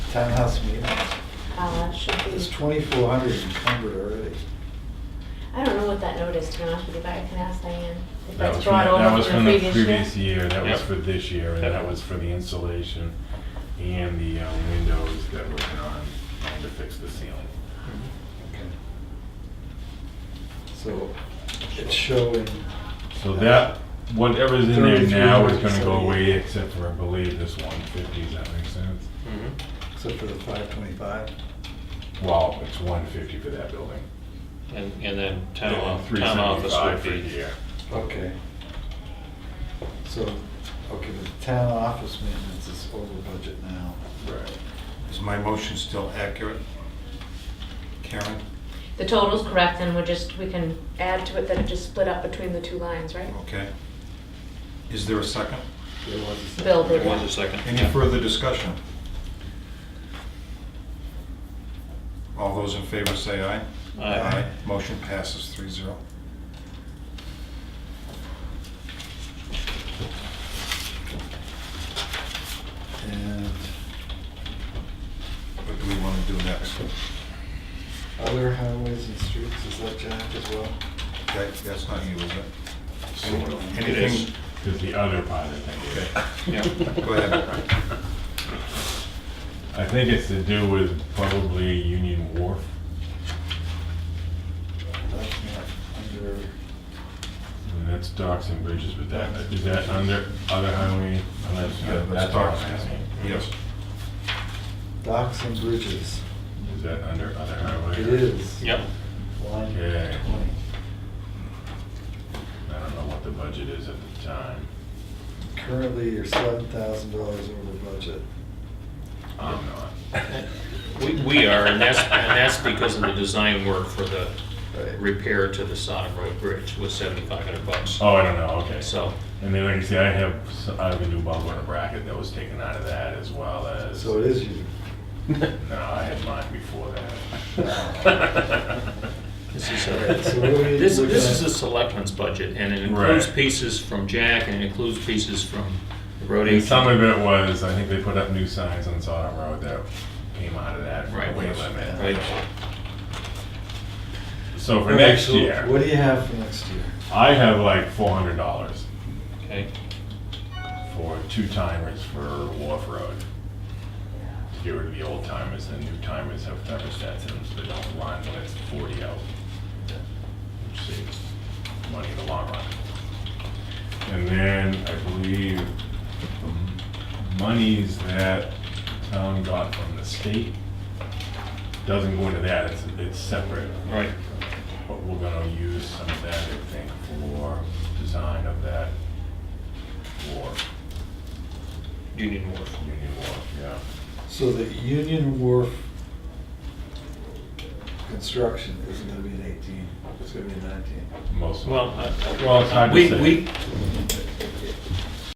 Townhouse meeting, Uh, should be, it's twenty-four hundred encumbered already. I don't know what that note is, to be honest with you, but I can ask Diane. If That that's was from, the- brought that over was from from the previous previous year. year, that was Yep. for this year, and that was for the installation and the uh, windows that were on, to fix the ceiling. Okay. So it's showing, So that, whatever's in there now is gonna go 33,178. away, except for, I believe, this one fifty, does that make sense? Mhm. except for the five twenty-five, Well, it's one fifty for that building. And, and then town, Then off- town office 375 would for the be, year. okay. So, okay, the town office maintenance is over budget now. Right. Is my motion still accurate? Karen? The total's correct, and we're just, we can add to it that it just split up between the two lines, right? Okay. Is there a second? There was a second. Bill there did. was a second. Any yeah. further discussion? All those in favor say aye. Aye. Motion passes 3-0. And What do we want to do next? other highways and streets, is that Jack as well? That- That's not you, is it? Sort of. It is. Anything? Because the other part, I think. Okay. Yeah. Go ahead. I think it's to do with probably Union Wharf. That's not under, And that's docks and bridges with that. Is that under other highway? Oh, that's- Yeah, That's that's our docks. Yes. docks and bridges, Is that under other highway? it is. Yep. Line Okay. twenty. I don't know what the budget is at the time. Currently, you're seven thousand dollars over budget. I'm not. We, we are, and that's, and that's because of the design work for the Right. repair to the Sodom Road Bridge was seventy-five hundred bucks. Oh, I don't know, okay. So, And then, like I say, I have, s- I have a new bubble in a bracket that was taken out of that as well as. So it is you. No, I had mine before that. this is, Alright, so a- what do we- this, this is a selectmen's budget, and it includes Right. pieces from Jack, and it includes pieces from the road And agent. some of it was, I think they put up new signs on Sodom Road that came out of that Right. weight Right. limit. So for next So year, What do you have for next year? I have like four hundred dollars Okay, for two timers for Wharf Road. To get rid of the old timers, the new timers have thermostats in them, so they don't run when it's forty out. Which saves money in the long run. And then I believe the monies that town got from the state doesn't go into that, it's, it's separate. right, But we're gonna use some of that, I think, for design of that wharf, Union Wharf. Union Wharf, yeah. So the Union Wharf construction isn't gonna be an eighteen, it's gonna be a nineteen. Most, Well, well, I- it's hard to we, say. we,